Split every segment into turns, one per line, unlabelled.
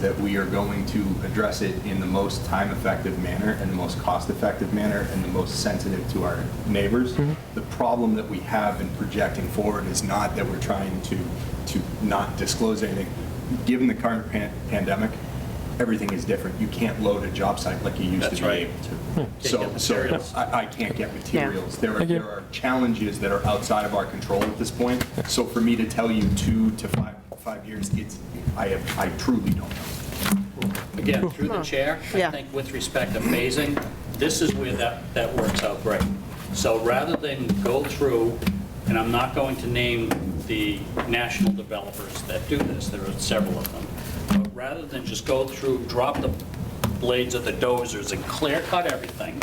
that we are going to address it in the most time-effective manner and the most cost-effective manner and the most sensitive to our neighbors. The problem that we have in projecting forward is not that we're trying to, to not disclose anything. Given the current pan- pandemic, everything is different. You can't load a job site like you used
That's
to be
right.
able to. So,
get
so
materials.
I, I can't get materials. There are,
Thank you.
there are challenges that are outside of our control at this point. So for me to tell you two to five, five years, it's, I have, I truly don't know.
Again, through the chair, I
Yeah.
think with respect to phasing, this is where that, that works out great. So rather than go through, and I'm not going to name the national developers that do this, there are several of them, but rather than just go through, drop the blades of the dozers and clear cut everything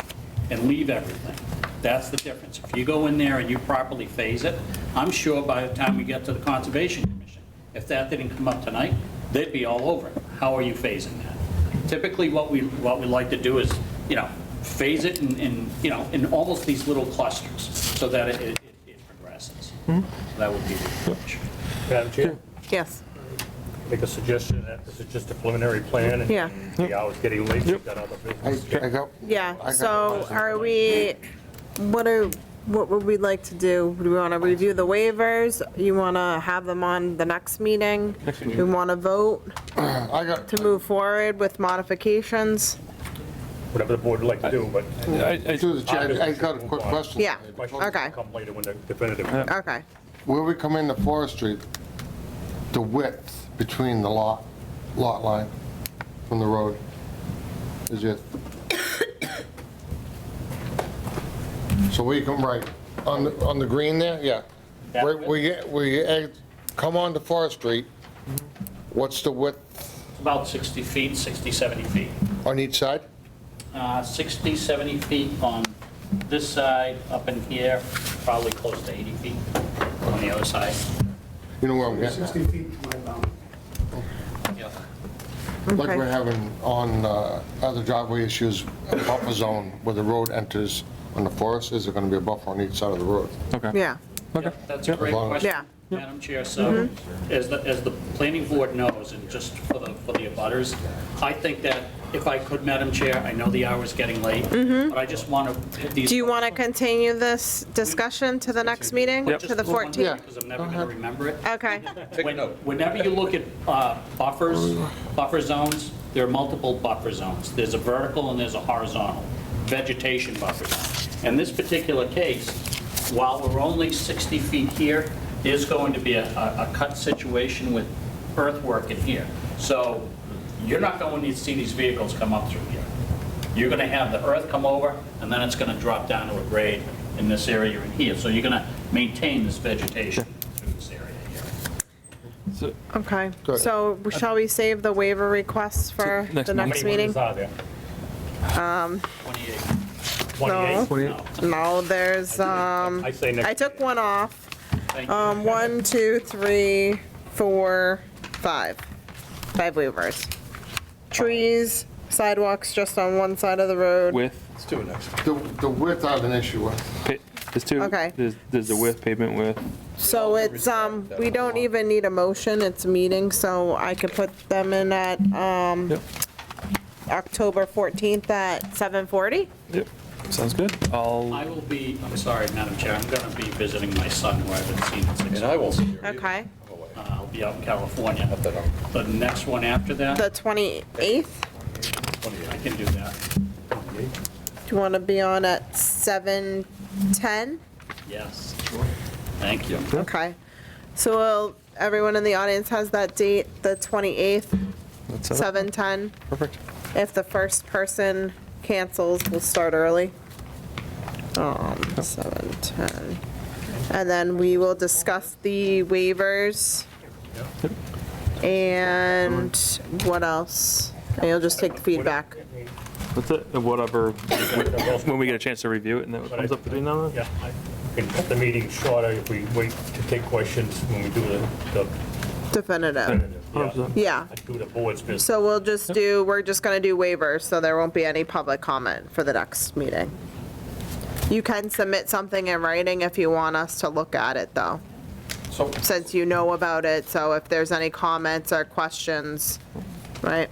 and leave everything, that's the difference. If you go in there and you properly phase it, I'm sure by the time we get to the Conservation Commission, if that didn't come up tonight, they'd be all over it. How are you phasing that? Typically, what we, what we like to do is, you know, phase it in, in, you know, in almost these little clusters so that it, it it progresses. That would be the approach.
Madam Chair,
Yes,
make a suggestion that this is just a preliminary plan. and
Yeah.
The hour's getting late, we've got other business.
I got.
yeah, so are we, what are, what would we like to do? Do we want to review the waivers? You want to have them on the next meeting? We want to vote
I got,
to move forward with modifications?
Whatever the board would like to do, but
I- I-
through the chair, I got a quick question.
Yeah.
questions
Okay.
will come later when they're definitive.
Okay,
Where we come into Forestry, the width between the lot, lot line from the road is it? So we come right, on, the on the green there, yeah.
That
Where
width?
where you, where you ex- come onto Forestry, what's the width
About 60 feet, 60, 70 feet.
on each side?
Uh, 60, 70 feet on this side, up in here, probably close to 80 feet on the other side.
You know where I'm getting at?
60 feet to my boundary.
Yeah.
Like
Okay.
we're having on uh, other driveway issues, a buffer zone where the road enters on the forest, is there going to be a buffer on each side of the road?
Okay.
yeah,
Okay.
That's a great
Yep.
question,
Yeah. Mm-hmm.
Madam Chair. So as the, as the planning board knows, and just for the, for the abutters, I think that if I could, Madam Chair, I know the hour's getting late, but I just want to hit these.
Mm-hmm. Do you want to continue this discussion to the next meeting, to the
Just one more,
14th?
Because I'm never going to remember it.
Okay,
When- Whenever you look at uh, buffers, buffer zones, there are multiple buffer zones. There's a vertical and there's a horizontal vegetation buffer zone. In this particular case, while we're only 60 feet here, there's going to be a- a a cut situation with earthwork in here. So you're not going to see these vehicles come up through here. You're going to have the earth come over, and then it's going to drop down to a grade in this area in here. So you're going to maintain this vegetation through this area here.
So-
okay.
Good.
So shall we save the waiver requests for
next
the
How
next
many
meeting?
windows are there?
28.
28?
No,
No, there's, um,
I say
I
next,
took one off.
thank you.
Um, one, two, three, four, five. Five waivers. Trees, sidewalks just on one side of the road.
Width,
The the width I have an issue with.
pa- there's two,
Okay.
there's, there's the width, pavement width.
So it's, um, we don't even need a motion, it's a meeting, so I could put them in at, um,
Yep.
October 14th at 7:40?
Yep, sounds good. I'll,
I will be, I'm sorry, Madam Chair, I'm going to be visiting my son who I haven't seen in six years.
And I will see you.
Okay.
Uh, I'll be out in California.
That I'm
The next one after that,
The 28th?
I can do that.
Do you want to be on at 7:10?
Yes. Thank you.
Okay. So will, everyone in the audience has that date, the 28th,
that's it.
7:10.
Perfect.
If the first person cancels, we'll start early. Um, 7:10. And then we will discuss the waivers. And what else? And you'll just take the feedback.
That's it, whatever, when we get a chance to review it and then it comes up between now and then.
yeah, I can cut the meeting shorter if we wait to take questions when we do the- the
Definitive.
definitive.
Hundred percent.
Yeah.
I do the board's business.
So we'll just do, we're just gonna do waivers, so there won't be any public comment for the next meeting. You can submit something in writing if you want us to look at it, though,
So
since you know about it, so if there's any comments or questions, right?